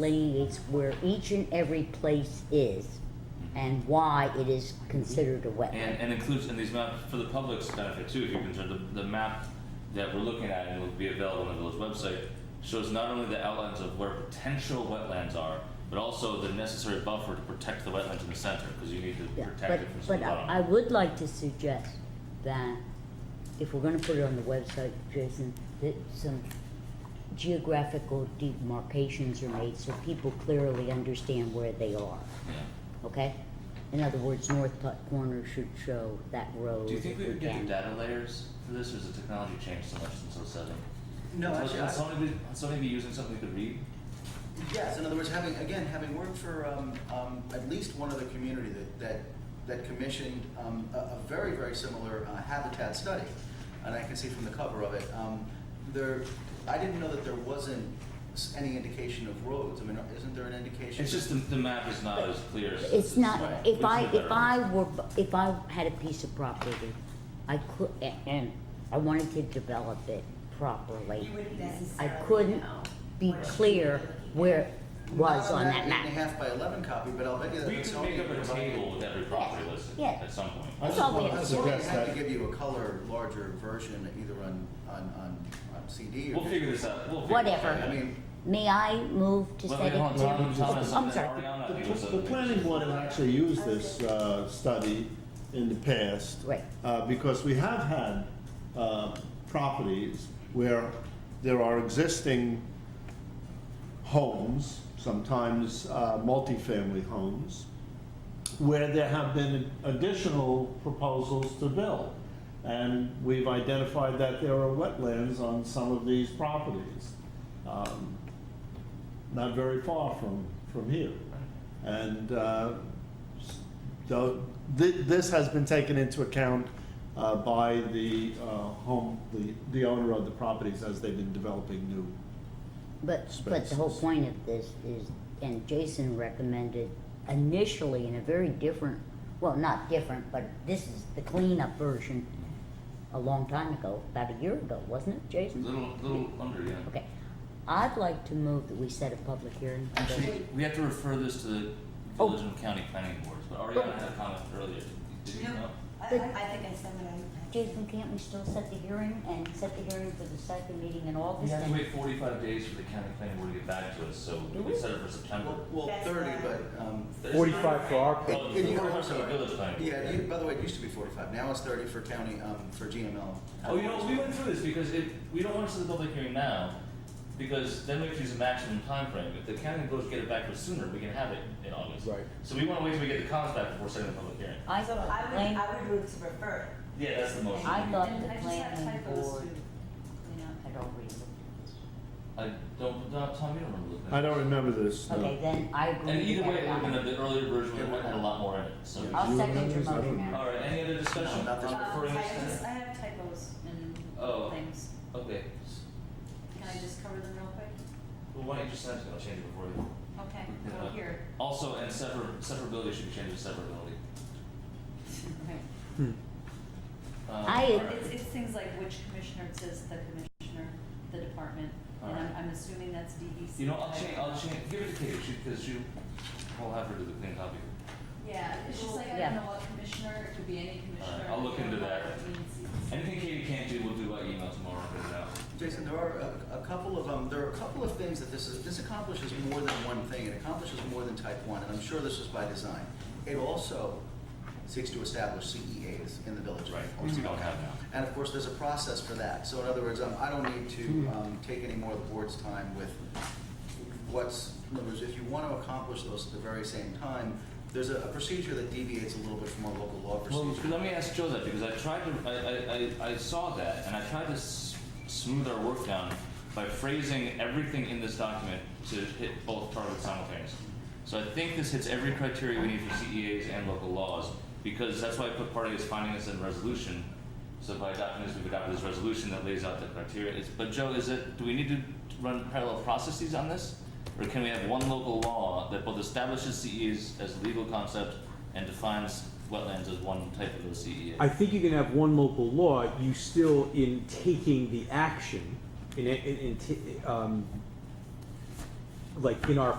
delineates where each and every place is and why it is considered a wetland. And, and includes, and these map, for the public's benefit too, if you're concerned, the, the map that we're looking at and will be available on the village website shows not only the outlines of where potential wetlands are, but also the necessary buffer to protect the wetlands in the center, because you need to Yeah, protect but, it from some but bottom. I I would like to suggest that if we're gonna put it on the website, Jason, that some geographical demarcations are made so people clearly understand where they are, Yeah. okay? In other words, North Putt Corner should show that road. Do you think we if would get can. the data layers for this, or has the technology changed so much since '07? No, Has- actually, Has I- somebody, been- has somebody been using something we could read? Yes, in other words, having, again, having worked for um, um, at least one other community that, that, that commissioned um, a, a very, very similar uh, habitat study, and I can see from the cover of it, um, there, I didn't know that there wasn't s- any indication of roads. I mean, isn't there an indication? It's just the, the map is not as clear as. It's right. not, We if should I, do if better. I were, if I had a piece of property, I could, a- and I wanted to develop it properly. You wouldn't I necessarily couldn't know be what clear you're looking where at. it was on that Not on that eight and a map. half by eleven copy, but I'll bet you that. We it's could make only up a provided- table with every property listed Yeah. at some point. I That's just all we want have. to Or they suggest have to that, give you a color, larger version, either on, on, on on CD or. We'll figure this out, we'll figure. Whatever. this out. I mean, May I move to Let set it me- hold to? on, Tom, Tom has Oh, I'm something. sorry. Ariana, I think, was the, the something. planning board had actually used this, uh, study in the past. Right. Uh, because we have had, uh, properties where there are existing homes, sometimes, uh, multifamily homes, where there have been additional proposals to build. And we've identified that there are wetlands on some of these properties, um, not very far from, from here. And uh, s- so thi- this has been taken into account uh, by the uh, home, the the owner of the properties as they've been developing new. But, but the whole Spaces. point of this is, and Jason recommended initially in a very different, well, not different, but this is the cleanup version a long time ago, about a year ago, wasn't it, Jason? Little, little under, yeah. Okay. I'd like to move that we set a public hearing. on this. Actually, we have to refer this to the Oh. village and county planning boards, but Ariana had a comment earlier. Did you know? No, I, I I But- think I said what I. Jason, can't we still set the hearing and set the hearing for the second meeting in We August? have to and- wait forty-five days for the county planning board to get back to us, so we set it for September. well, well, That's thirty, fine. but, um, Forty-five for our It- part. Well, it- the you- forty-five for the sorry. village planning board, Yeah, yeah. you, by the way, it used to be forty-five, now it's thirty for county, um, for GML. Oh, you know, we went through this because it, we don't want to set the public hearing now, because then we have to use a maximum time frame. If the county goes get it back to us sooner, we can have it in August. Right. So we wanna wait till we get the comments back before setting the public hearing. I So thought I Lang- would, I would move to refer. Yeah, that's the motion. I thought And the I just have planning typos board too, you know. had already looked at this. I don't, no, Tom, you don't remember looking at I don't remember this, no. Okay, then I agree. And either with way, it would have Ariana. been the earlier version, it would have had a lot more in it, so. Yeah. I'll You second your remember? I don't motion remember. now. All right, any other discussion? No, not this I'm Um, referring I this to- just, I have typos Oh. and things. Okay. Can I just cover them real quick? Well, why don't you just send it, I'll change it before you. Okay, Yeah. well, here. Also, and sever, severability should be changed to severability. Um, I- all right. It's, it's things like which commissioner, it says the commissioner, the department, and I'm, Alright. I'm assuming that's DEC. You know, I'll change, I'll change, give it to Katie, she, because she, we'll have her do the clean copy. Yeah, it's just like, I Yeah. don't know what commissioner, it could be any commissioner. I'll look into that. I mean, it's- Anything Katie can't do, we'll do by email tomorrow, but now. Jason, there are a, a couple of, um, there are a couple of things that this is, this accomplishes more than one thing, it accomplishes more than type one, and I'm sure this was by design. It also seeks to establish CEAs in the village. Right, or which we CEAs. don't have now. And of course, there's a process for that, so in other words, um, I don't need to, um, take any more of the board's time with what's, in other words, if you want to accomplish those at the very same time, there's a, a procedure that deviates a little bit from our local law Well, procedure. let me ask Joe that, because I tried to, I, I, I, I saw that, and I tried to s- smooth our work down by phrasing everything in this document to hit both targets simultaneously. So I think this hits every criteria we need for CEAs and local laws, because that's why I put part of his findings in resolution. So by adopting this, we've adopted this resolution that lays out the criteria. It's, but Joe, is it, do we need to run parallel processes on this? Or can we have one local law that both establishes CEAs as a legal concept and defines wetlands as one type of a CEA? I think you can have one local law, you still, in taking the action, in, in, in, ta- um, like in our